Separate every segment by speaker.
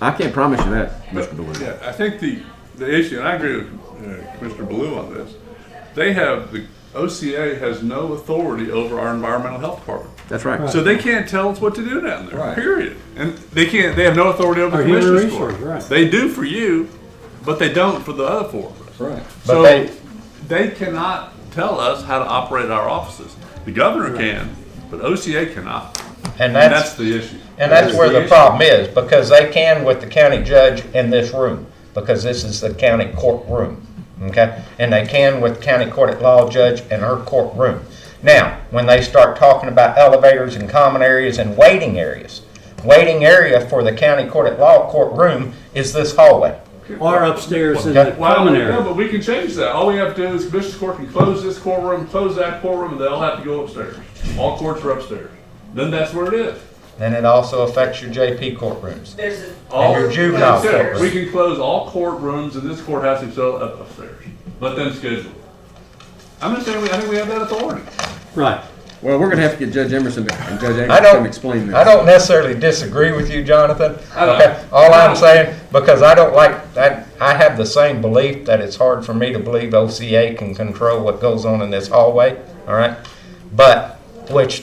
Speaker 1: I can't promise you that, Mr. Blue.
Speaker 2: Yeah, I think the, the issue, and I agree with uh, Commissioner Blue on this, they have, the OCA has no authority over our environmental health department.
Speaker 1: That's right.
Speaker 2: So they can't tell us what to do down there,
Speaker 3: Right.
Speaker 2: period. And they can't, they have no authority over the
Speaker 4: Or human
Speaker 2: commissioners for
Speaker 4: resource,
Speaker 2: it.
Speaker 4: right.
Speaker 2: They do for you, but they don't for the other four of us.
Speaker 3: Right.
Speaker 2: So
Speaker 1: they-
Speaker 2: they cannot tell us how to operate our offices. The governor can, but OCA cannot.
Speaker 5: And
Speaker 2: And
Speaker 5: that's,
Speaker 2: that's the issue.
Speaker 5: and that's where the
Speaker 2: issue.
Speaker 5: problem is, because they can with the county judge in this room, because this is the county courtroom, okay? And they can with county court at law judge and her courtroom. Now, when they start talking about elevators and common areas and waiting areas, waiting area for the county court at law courtroom is this hallway.
Speaker 4: Or upstairs in the
Speaker 2: Well,
Speaker 4: common
Speaker 2: No,
Speaker 4: area.
Speaker 2: but we can change that. All we have to do is Commissioners Court can close this courtroom, close that courtroom, and they all have to go upstairs. All courts are upstairs. Then that's where it is.
Speaker 5: And it also affects your JP courtrooms.
Speaker 6: There's a,
Speaker 2: All
Speaker 5: And your juvenile
Speaker 2: upstairs.
Speaker 5: courtroom.
Speaker 2: We can close all courtrooms in this courthouse except up upstairs. Let them schedule. it. I'm just saying, we- I think we have that authority.
Speaker 4: Right.
Speaker 1: Well, we're gonna have to get Judge Emerson to- and Judge
Speaker 5: I
Speaker 1: Emerson to
Speaker 5: don't,
Speaker 1: come explain this.
Speaker 5: I don't necessarily disagree with you, Jonathan.
Speaker 2: I don't.
Speaker 5: Okay, All
Speaker 2: No.
Speaker 5: I'm saying, because I don't like, that. I have the same belief that it's hard for me to believe OCA can control what goes on in this hallway, all right? But, which,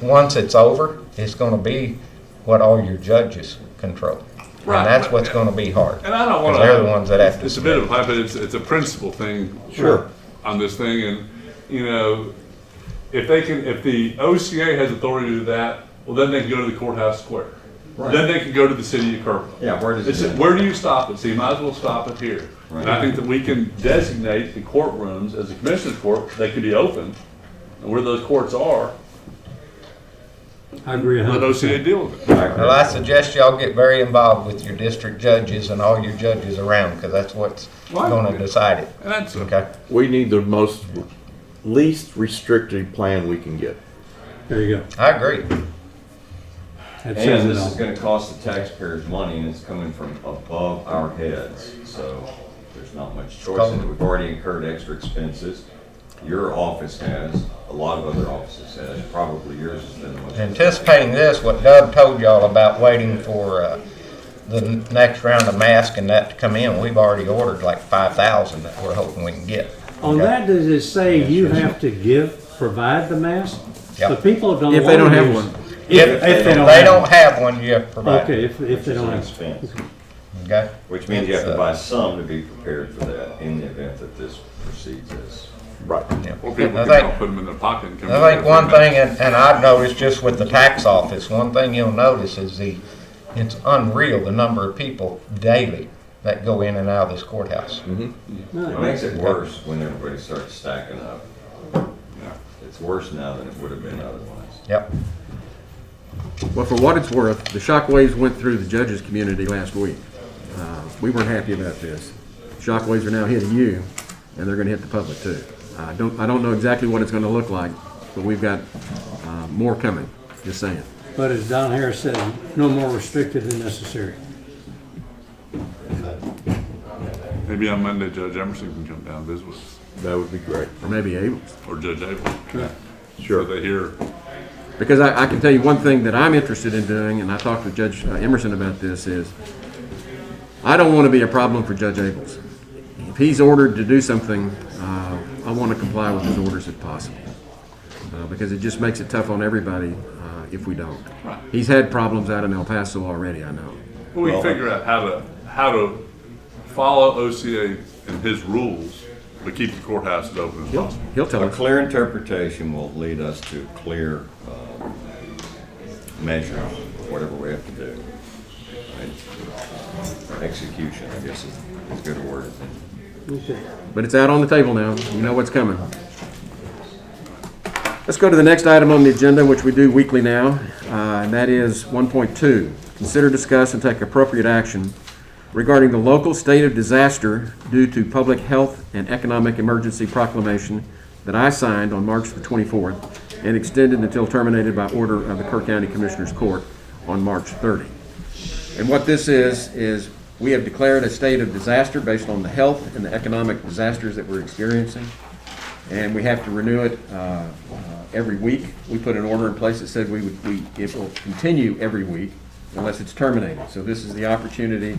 Speaker 5: once it's over, it's gonna be what all your judges control.
Speaker 2: Right,
Speaker 5: And that's
Speaker 2: but-
Speaker 5: what's gonna be hard.
Speaker 2: And I don't want to.
Speaker 5: Because they're the ones that have to
Speaker 2: It's a bit of a hype, but it's, it's a principle thing.
Speaker 4: Sure.
Speaker 2: On this thing, and, you know, if they can, if the OCA has authority to do that, well, then they can go to the courthouse square. Then they can go to the city of Kirkland.
Speaker 3: Yeah, where does it
Speaker 2: It's,
Speaker 3: end?
Speaker 2: where do you stop it? So you might as well stop it here. And I think that we can designate the courtrooms as a commissioner's court, they could be open, and where those courts are,
Speaker 4: I agree a
Speaker 2: let
Speaker 4: hundred
Speaker 2: OCA
Speaker 4: percent.
Speaker 2: deal with it.
Speaker 5: Well, I suggest y'all get very involved with your district judges and all your judges around, because that's what's
Speaker 2: Well,
Speaker 5: gonna decide it,
Speaker 2: And that's, okay.
Speaker 5: okay?
Speaker 7: We need the most, least restrictive plan we can get.
Speaker 4: There you go.
Speaker 5: I agree.
Speaker 4: That says
Speaker 3: And
Speaker 4: it
Speaker 3: this is
Speaker 4: all.
Speaker 3: gonna cost the taxpayers money and it's coming from above our heads, so there's not much choice. in it. We've already incurred extra expenses. Your office has, a lot of other offices has, probably yours has been the most.
Speaker 5: anticipating this, what Doug told y'all about waiting for uh, the n- next round of masks and that to come in, we've already ordered like five thousand that we're hoping we can get.
Speaker 4: On that, does it say you have to give, provide the mask?
Speaker 5: Yep.
Speaker 4: The people don't.
Speaker 1: If they don't
Speaker 4: wanna
Speaker 1: have
Speaker 4: use-
Speaker 1: one.
Speaker 4: If, if they don't.
Speaker 5: They
Speaker 4: have
Speaker 5: don't
Speaker 4: one.
Speaker 5: have one, you have to provide,
Speaker 4: Okay,
Speaker 5: it,
Speaker 4: if, if they don't have.
Speaker 3: Expense.
Speaker 5: okay?
Speaker 3: Which means you have to
Speaker 5: It's, uh,
Speaker 3: buy some to be prepared for that in the event that this proceeds as.
Speaker 7: Right.
Speaker 5: yeah.
Speaker 2: Or people
Speaker 5: I
Speaker 2: can
Speaker 5: think-
Speaker 2: all put them in their pocket and come.
Speaker 5: I think one thing, and, and I've noticed just with the tax office, one thing you'll notice is the, it's unreal, the number of people daily that go in and out of this courthouse.
Speaker 2: Mm-hmm.
Speaker 3: It makes it worse when everybody starts stacking up. It's worse now than it would have been otherwise.
Speaker 5: Yep,
Speaker 1: Well, for what it's worth, the shockwaves went through the judges' community last week. Uh, We weren't happy about this. Shockwaves are now hitting you, and they're gonna hit the public too. I don't, I don't know exactly what it's gonna look like, but we've got uh, more coming, just saying.
Speaker 4: But as Don Harris said, no more restrictive than necessary.
Speaker 2: Maybe on Monday, Judge Emerson can come down and visit us.
Speaker 7: That would be great.
Speaker 1: Or maybe able,
Speaker 2: or Judge Abel.
Speaker 7: Sure.
Speaker 2: So they hear.
Speaker 1: Because I, I can tell you one thing that I'm interested in doing, and I talked with Judge uh, Emerson about this, is I don't want to be a problem for Judge Abels. If he's ordered to do something, uh, I want to comply with his orders if possible. Uh, because it just makes it tough on everybody, uh, if we don't. He's had problems out in El Paso already, I know.
Speaker 2: We can figure out how to how to follow OCA and his rules, but keep the courthouses open as
Speaker 1: He'll,
Speaker 2: possible.
Speaker 1: he'll tell
Speaker 3: A
Speaker 1: us.
Speaker 3: clear interpretation will lead us to clear um, measure, whatever we have to do. Right? Execution, I guess is is a good word.
Speaker 4: Okay.
Speaker 1: But it's out on the table now. You know what's coming. Let's go to the next item on the agenda, which we do weekly now, uh, and that is 1.2. Consider, discuss, and take appropriate action regarding the local state of disaster due to public health and economic emergency proclamation that I signed on March the 24th and extended until terminated by order of the Kerr County Commissioners Court on March 30. And what this is, is we have declared a state of disaster based on the health and the economic disasters that we're experiencing. And we have to renew it uh, uh, every week. We put an order in place that said we would, we, it will continue every week unless it's terminated. So this is the opportunity